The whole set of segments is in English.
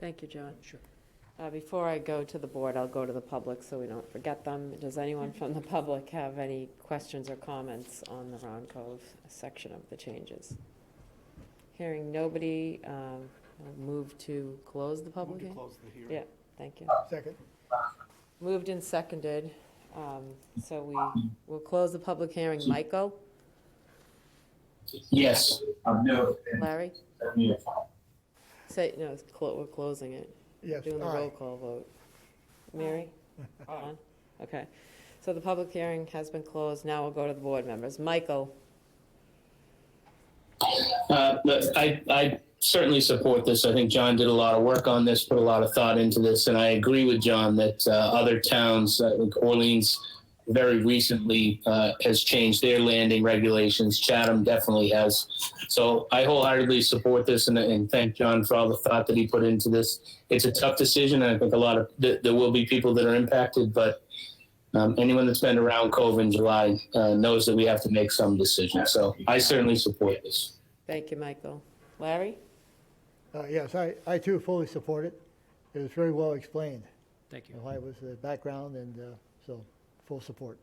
Thank you, John. Sure. Uh, Before I go to the board, I'll go to the public so we don't forget them. Does anyone from the public have any questions or comments on the Ron Cove section of the changes? Hearing nobody, um, I'll move to close the public Move to hearing? close the hearing. Yeah, thank you. Second. Moved and seconded, um, so we will close the public hearing. Michael, Yes, I'm no. Larry? Yes. Say, no, it's clo- we're closing it. Yes, Doing the roll call vote. Mary? Ron? Okay. So the public hearing has been closed. Now we'll go to the board members. Michael? Uh, look, I, I certainly support this. I think John did a lot of work on this, put a lot of thought into this, and I agree with John that uh, other towns, uh, like Orleans, very recently uh, has changed their landing regulations. Chatham definitely has. So I wholeheartedly support this and, and thank John for all the thought that he put into this. It's a tough decision, and I think a lot of th- there will be people that are impacted, but. Um, anyone that's been around Cove in July uh, knows that we have to make some decisions. So I certainly support this. Thank you, Michael. Larry? Uh, Yes, I, I too fully support it. It was very well explained, Thank and why it was the background, and uh, so, full support.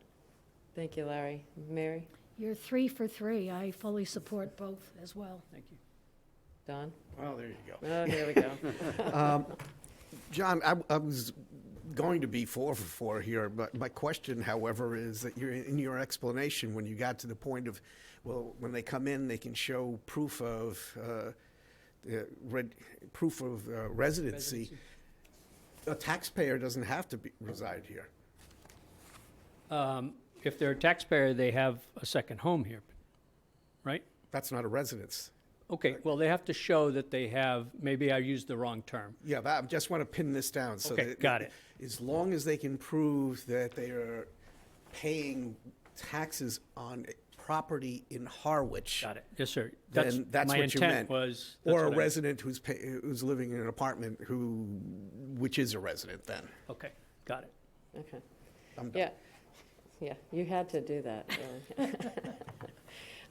Thank you, Larry. Mary? You're three for three. I fully support both as well. Thank you. Don? Well, there you go. Oh, there we go. John, I, I was going to be four for four here, but my question, however, is that you're, in your explanation, when you got to the point of, well, when they come in, they can show proof of, uh, uh, red, proof of uh, residency. A taxpayer doesn't have to be, reside here. Um, If they're a taxpayer, they have a second home here, right? That's not a residence. Okay, well, they have to show that they have, maybe I used the wrong term. Yeah, but I just want to pin this down. So Okay, that- got it. As long as they can prove that they are paying taxes on property in Harwich. Got it. Yes, sir. That's, then that's my what you intent meant. was. that's Or a what I- resident who's pay, who's living in an apartment who, which is a resident then. Okay, got it. Okay. I'm done. Yeah, yeah, you had to do that, really.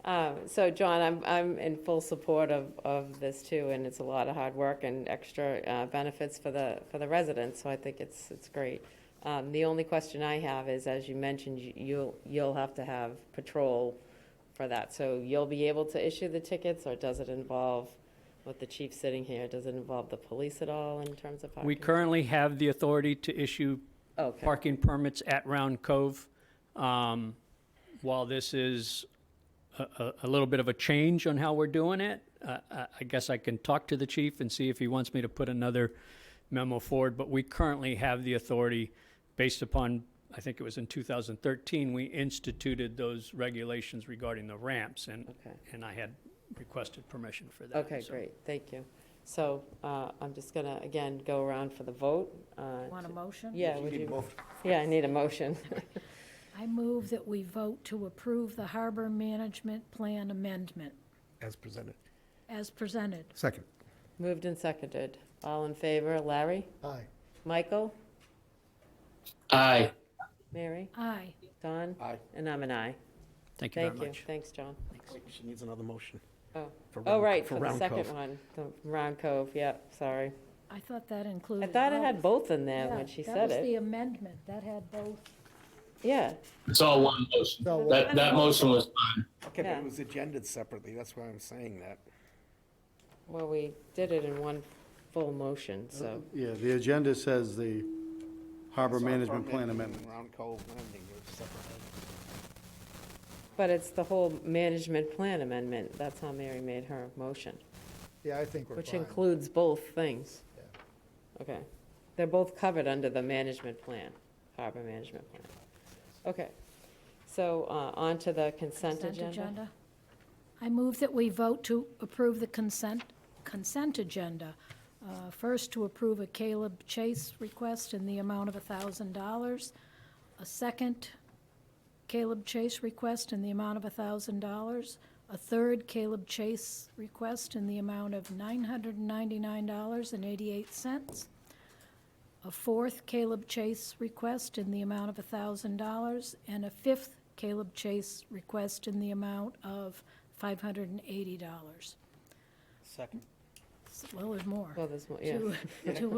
Um, So, John, I'm, I'm in full support of, of this too, and it's a lot of hard work and extra uh, benefits for the, for the residents, so I think it's, it's great. Um, The only question I have is, as you mentioned, you- you'll, you'll have to have patrol for that. So you'll be able to issue the tickets, or does it involve, with the chief sitting here, does it involve the police at all in terms of parking? We currently have the authority to issue Okay. parking permits at Round Cove. Um, While this is a- a a little bit of a change on how we're doing it, uh, I I guess I can talk to the chief and see if he wants me to put another memo forward, but we currently have the authority based upon, I think it was in 2013, we instituted those regulations regarding the ramps, and Okay. and I had requested permission for that. Okay, so- great, thank you. So uh, I'm just going to, again, go around for the vote. uh, Want a motion? Yeah, would you, yeah, I need a motion. I move that we vote to approve the harbor management plan amendment As presented. as presented. Second. Moved and seconded. All in favor, Larry? Aye. Michael? Aye. Mary? Aye. Don? Aye. And I'm an aye. Thank you very Thank you, much. thanks, John. Oh, She needs another motion. Oh, For oh, Round- right, for for the Round second Cove. one, the Round Cove, yep, sorry. I thought that I included. thought it had both. both in there Yeah, when she That said was the it. amendment. That had both. Yeah, It's all one motion. So, uh, That, that motion was fine. Okay, but Yeah. it was agendaed separately, that's why I'm saying that. well, we did it in one full motion, so, Yeah, the agenda says the harbor So our management plan permit and amendment. Round Cove Landing was separate. but it's the whole management plan amendment, that's how Mary made her motion. Yeah, I think we're Which fine. includes both things? Yeah. Okay. They're both covered under the management plan, harbor management plan. Okay. So uh, on to the consent Consent agenda. agenda. I move that we vote to approve the consent, consent agenda. Uh, First, to approve a Caleb Chase request in the amount of $1,000. A second Caleb Chase request in the amount of $1,000. A third Caleb Chase request in the amount of $999.88. A fourth Caleb Chase request in the amount of $1,000, and a fifth Caleb Chase request in the amount of $580. Second. well, there's more, Well, there's, more- yeah. two, two